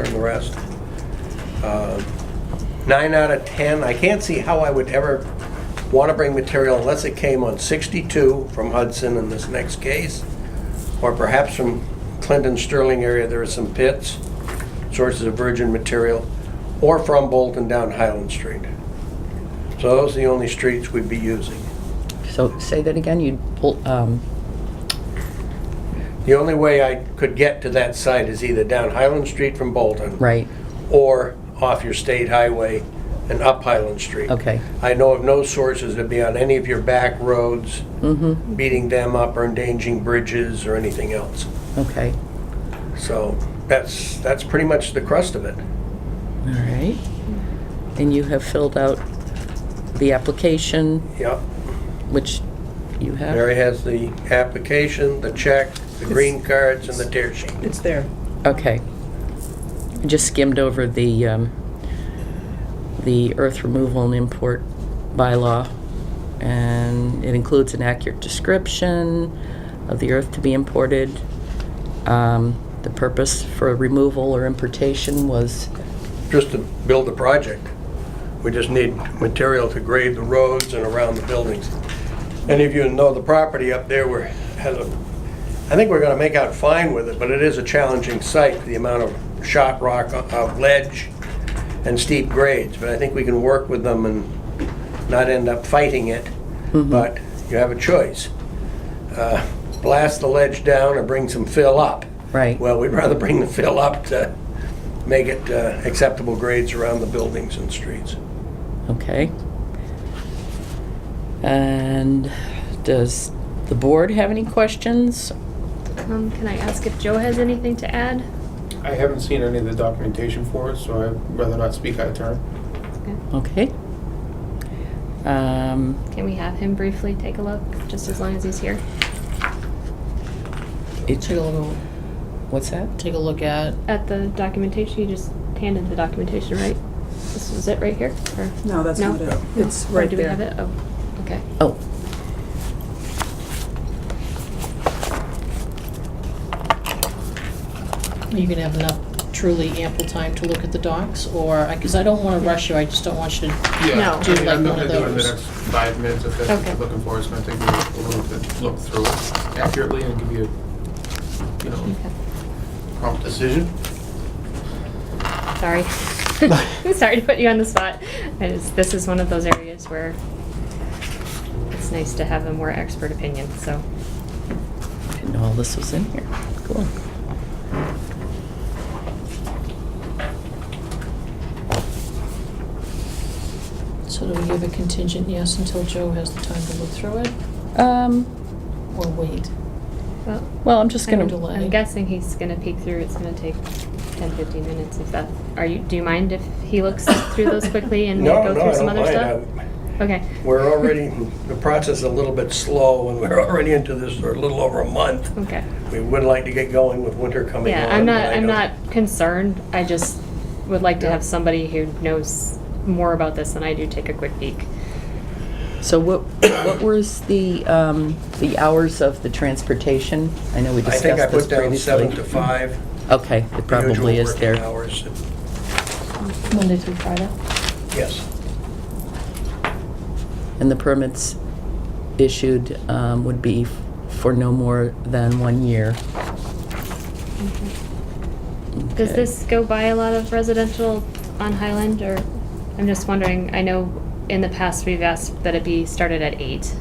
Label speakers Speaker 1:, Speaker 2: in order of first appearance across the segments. Speaker 1: and the rest. Uh, Nine out of 10, I can't see how I would ever want to bring material unless it came on 62 from Hudson in this next case, or perhaps from Clinton Sterling area, there are some pits, sources of virgin material, or from Bolton down Highland Street. So those are the only streets we'd be using.
Speaker 2: So say that again, you, pull- um,
Speaker 1: The only way I could get to that site is either down Highland Street from Bolton.
Speaker 2: right,
Speaker 1: or off your state highway and up Highland Street.
Speaker 2: Okay.
Speaker 1: I know of no sources that be on any of your back roads, beating them up or endangering bridges or anything else.
Speaker 2: okay,
Speaker 1: So that's, that's pretty much the crust of it.
Speaker 2: all right. And you have filled out the application,
Speaker 1: Yep.
Speaker 2: which you have?
Speaker 1: Mary has the application, the check, the green cards, and the tear sheet.
Speaker 3: It's there.
Speaker 2: Okay. I Just skimmed over the, um, the earth removal and import bylaw, and it includes an accurate description of the earth to be imported. Um, The purpose for removal or importation was,
Speaker 1: Just to build the project. We just need material to grade the roads and around the buildings. Any of you who know the property up there, we're, has a, I think we're gonna make out fine with it, but it is a challenging site, the amount of shot rock, uh, of ledge, and steep grades, but I think we can work with them and not end up fighting it, but you have a choice. Uh, Blast the ledge down or bring some fill up.
Speaker 2: Right.
Speaker 1: Well, we'd rather bring the fill up to make it uh, acceptable grades around the buildings and streets.
Speaker 2: okay. And does the board have any questions?
Speaker 4: Um, can I ask if Joe has anything to add?
Speaker 5: I haven't seen any of the documentation for it, so I'd rather not speak out of turn.
Speaker 2: Okay. Um,
Speaker 4: Can we have him briefly take a look, just as long as he's here?
Speaker 2: It's,
Speaker 6: Take a little,
Speaker 2: what's that?
Speaker 6: take a look at,
Speaker 4: At the documentation, you just handed the documentation, right? This is it right here? Or-
Speaker 3: No, that's
Speaker 4: No?
Speaker 3: not it. It's
Speaker 4: Or
Speaker 3: right
Speaker 4: do we
Speaker 3: there.
Speaker 4: have it? Oh, okay.
Speaker 2: Oh.
Speaker 6: you can have enough truly ample time to look at the docs, or, because I don't want to rush you, I just don't want you to,
Speaker 4: No.
Speaker 5: I mean,
Speaker 6: Do like
Speaker 5: I'm not
Speaker 6: one
Speaker 5: gonna
Speaker 6: of
Speaker 5: do it in the
Speaker 6: those.
Speaker 5: next five minutes if that's what
Speaker 4: Okay.
Speaker 5: you're looking for. It's gonna take me a little bit to look through it accurately and give you, a, you know,
Speaker 4: Okay.
Speaker 5: prompt decision.
Speaker 4: Sorry. Sorry to put you on the spot. I just, this is one of those areas where it's nice to have a more expert opinion, so.
Speaker 2: I didn't know all this was in here. Cool.
Speaker 6: so do we give a contingent yes until Joe has the time to look through it,
Speaker 2: Um,
Speaker 6: or wait?
Speaker 4: Well,
Speaker 2: well, I'm just gonna,
Speaker 6: Kinda delay.
Speaker 4: I'm guessing he's gonna peek through, it's gonna take 10, 15 minutes if that, are you, do you mind if he looks through those quickly and we
Speaker 1: No,
Speaker 4: go
Speaker 1: no, I
Speaker 4: through some
Speaker 1: don't
Speaker 4: other stuff?
Speaker 1: mind. I-
Speaker 4: Okay,
Speaker 1: We're already, the process is a little bit slow, and we're already into this for a little over a month.
Speaker 4: okay.
Speaker 1: We would like to get going with winter coming on.
Speaker 4: Yeah, I'm not,
Speaker 1: but I
Speaker 4: I'm
Speaker 1: don't-
Speaker 4: not concerned, I just would like to
Speaker 1: Yeah.
Speaker 4: have somebody who knows more about this than I do take a quick peek.
Speaker 2: so what, what was the, um, the hours of the transportation? I know we
Speaker 1: I
Speaker 2: discussed
Speaker 1: think I
Speaker 2: this
Speaker 1: put down seven to
Speaker 2: previously.
Speaker 1: five,
Speaker 2: Okay, it
Speaker 1: the usual
Speaker 2: probably is
Speaker 1: working
Speaker 2: there.
Speaker 1: hours.
Speaker 6: Monday through Friday?
Speaker 1: Yes,
Speaker 2: And the permits issued, um, would be f- for no more than one year.
Speaker 4: Does
Speaker 2: Okay.
Speaker 4: this go by a lot of residential on Highland, or, I'm just wondering, I know in the past we've asked that it be started at eight,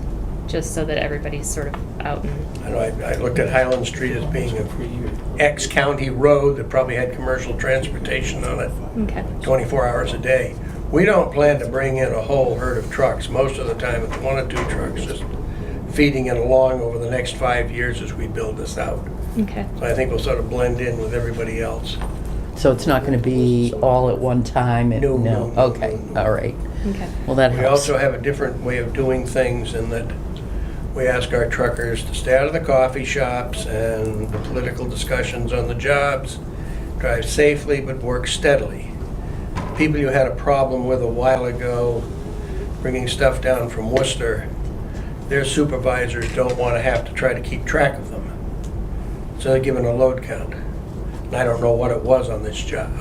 Speaker 4: just so that everybody's sort of out and
Speaker 1: I know, I I looked at Highland Street as being an ex-county road that probably had commercial transportation on it.
Speaker 4: Okay,
Speaker 1: 24 hours a day. We don't plan to bring in a whole herd of trucks. Most of the time, it's one or two trucks just feeding it along over the next five years as we build this out.
Speaker 4: okay.
Speaker 1: So I think we'll sort of blend in with everybody else.
Speaker 2: So it's not gonna be all at one time? and-
Speaker 1: No, no, no,
Speaker 2: Okay,
Speaker 1: no, no.
Speaker 2: all right.
Speaker 4: Okay.
Speaker 2: Well, that
Speaker 1: We
Speaker 2: helps.
Speaker 1: also have a different way of doing things in that we ask our truckers to stay out of the coffee shops and the political discussions on the jobs, drive safely but work steadily. People you had a problem with a while ago, bringing stuff down from Worcester, their supervisors don't want to have to try to keep track of them. So they're given a load count. And I don't know what it was on this job,